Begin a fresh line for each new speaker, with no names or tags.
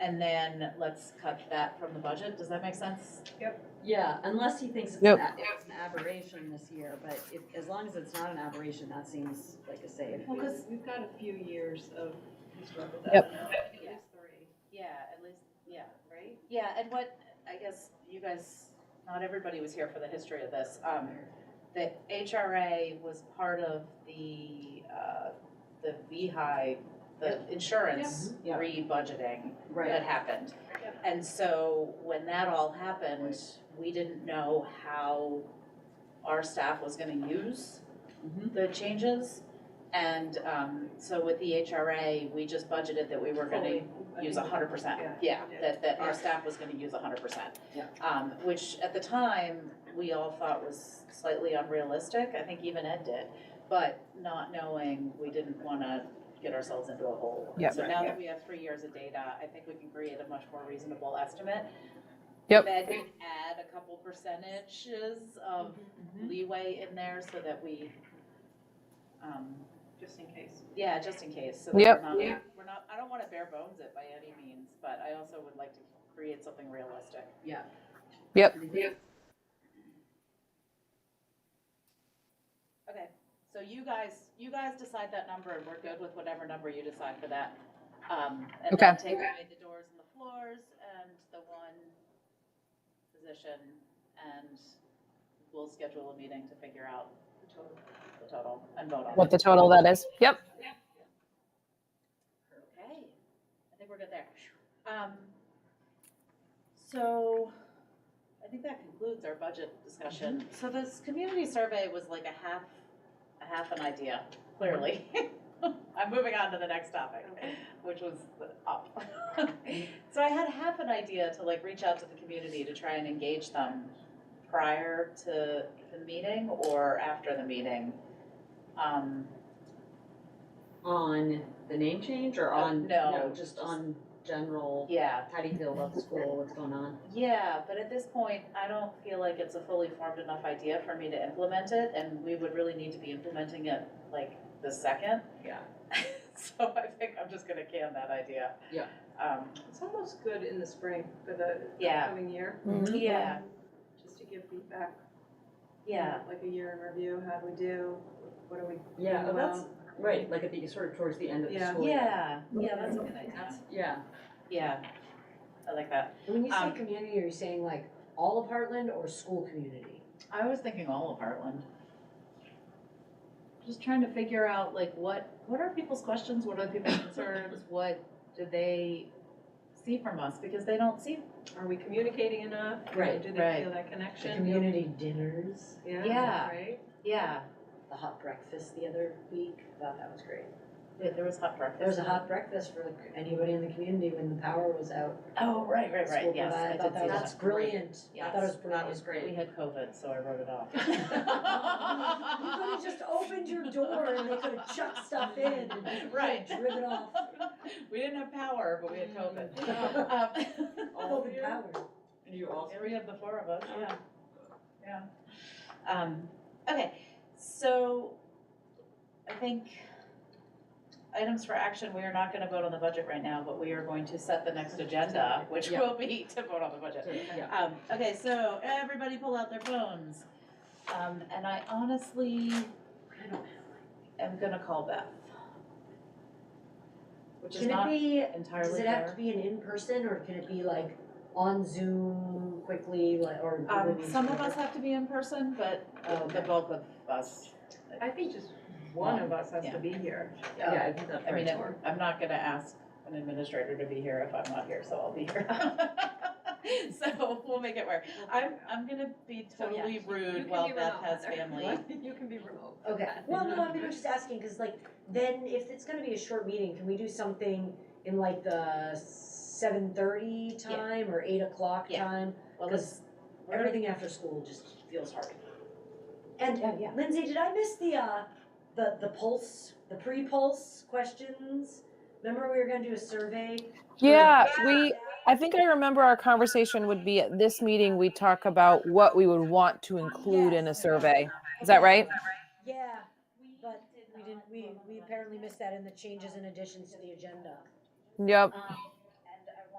and then let's cut that from the budget. Does that make sense?
Yeah, unless he thinks it's
Yep.
an a- it's an aberration this year, but if, as long as it's not an aberration, that seems like a save.
Well, because we've got a few years of historic with
Yep.
that now, at least three,
Yeah, at least, yeah.
right?
Yeah, and what, I guess you guys, not everybody was here for the history of this. Um, the HRA was part of the, uh, the VHI, the insurance
Yeah.
re-budgeting that
Right,
happened.
Yep.
And so when that all happened, we didn't know how our staff was gonna use
Mhm.
the changes. And, um, so with the HRA, we just budgeted that we were gonna use a hundred percent,
Yeah.
yeah, that, that
Yeah.
our staff was gonna use a hundred percent.
Yeah.
Um, which at the time, we all thought was slightly unrealistic, I think even Ed did, but not knowing, we didn't wanna get ourselves into a hole.
Yeah.
So now that we have three years of data, I think we can create a much more reasonable estimate.
Yep.
Then we add a couple percentages of
Um,
Mm-hmm.
Mm-hmm.
leeway in there so that we, um,
Just in case.
yeah, just in case, so that we're
Yep.
not,
Yeah.
we're not, I don't wanna bare bones it by any means, but I also would like to create something realistic.
yeah.
Yep.
Okay, so you guys, you guys decide that number and we're good with whatever number you decide for that. Um, and then take away the doors and the floors and the one position and we'll schedule a meeting to figure out the total and vote on it.
What the total that is? Yep.
Okay, I think we're good there. Um, so I think that concludes our budget discussion. So this community survey was like a half, a half an idea, clearly. I'm moving on to the next topic, which was up. So I had half an idea to like reach out to the community to try and engage them prior to the meeting or after the meeting. Um,
On the name change or
Uh,
on,
no,
no, just on general,
yeah,
how do you feel about the school, what's going on?
Yeah, but at this point, I don't feel like it's a fully formed enough idea for me to implement it, and we would really need to be implementing it like the second.
Yeah.
So I think I'm just gonna can that idea.
Yeah.
Um,
It's almost good in the spring for the
Yeah.
coming year.
Mm-hmm.
Um,
yeah,
Just to give feedback.
yeah,
Like a year in review, how do we do, what are we?
Yeah,
doing
oh, that's,
well?
right, like at the, sort of towards the end of the
Yeah.
school. year.
yeah, yeah, that's a good idea,
That's, yeah.
yeah, I like that.
When you say
Um,
community, are you saying like all of Heartland or school community?
I was thinking all of Heartland. Just trying to figure out like what, what are people's questions, what are people's concerns, what do they see from us, because they don't see
Are we communicating enough?
Right,
Do
right.
they feel that
The
connection?
community dinners,
Yeah,
Yeah.
right?
Yeah,
the hot breakfast the other week, thought that was great.
there there was hot breakfast.
There was a hot breakfast for anybody in the community when the power was out.
Oh, right, right, right,
School
yes, I
provided,
did
thought
see
that was-
that.
That's brilliant. I thought it was
That
brilliant.
was great.
We had COVID, so I wrote it off.
You could have just opened your door and they could have chucked stuff in and you could have
Right.
driven off.
We didn't have power, but we had COVID.
Mm.
Um,
All of
Open
you?
power.
You all
Yeah, we have the four of us, yeah, yeah. Um, okay, so I think items for action, we are not gonna vote on the budget right now, but we are going to set the next agenda, which
Yeah.
will be to vote on the budget.
Yeah,
Um, okay, so everybody pull out their phones. Um, and I honestly am gonna call Beth. Which is
Can it
not
be, does
entirely
it have to
fair.
be an in-person or can it be like on Zoom quickly, like, or?
Um, some of us have to be in person, but uh, the
Okay.
bulk of us,
I think just one of us has to be here.
yeah, I think that's
I mean,
right.
I'm- I'm not gonna ask an administrator to be here if I'm not here, so I'll be here. So we'll make it work. I'm, I'm gonna be
So, yeah,
totally
you- you
rude
can
while
be
Beth
remote,
has
Heather.
family.
You can be remote.
Okay, well, no, I mean, I'm just asking, cause like, then if it's gonna be a short meeting, can we do something in like the seven thirty
Yeah.
time or eight o'clock
Yeah.
time?
Well,
Cause
we're-
everything after school just feels hard. And Lindsay, did I miss the, uh, the, the pulse, the pre-pulse questions? Remember we were gonna do a survey?
Yeah, we, I think I remember our conversation would be at this meeting, we talk about what we would want to include in a survey. Is that right?
Yeah, but we didn't, we, we apparently missed that in the changes and additions to the agenda.
Yep.
Um,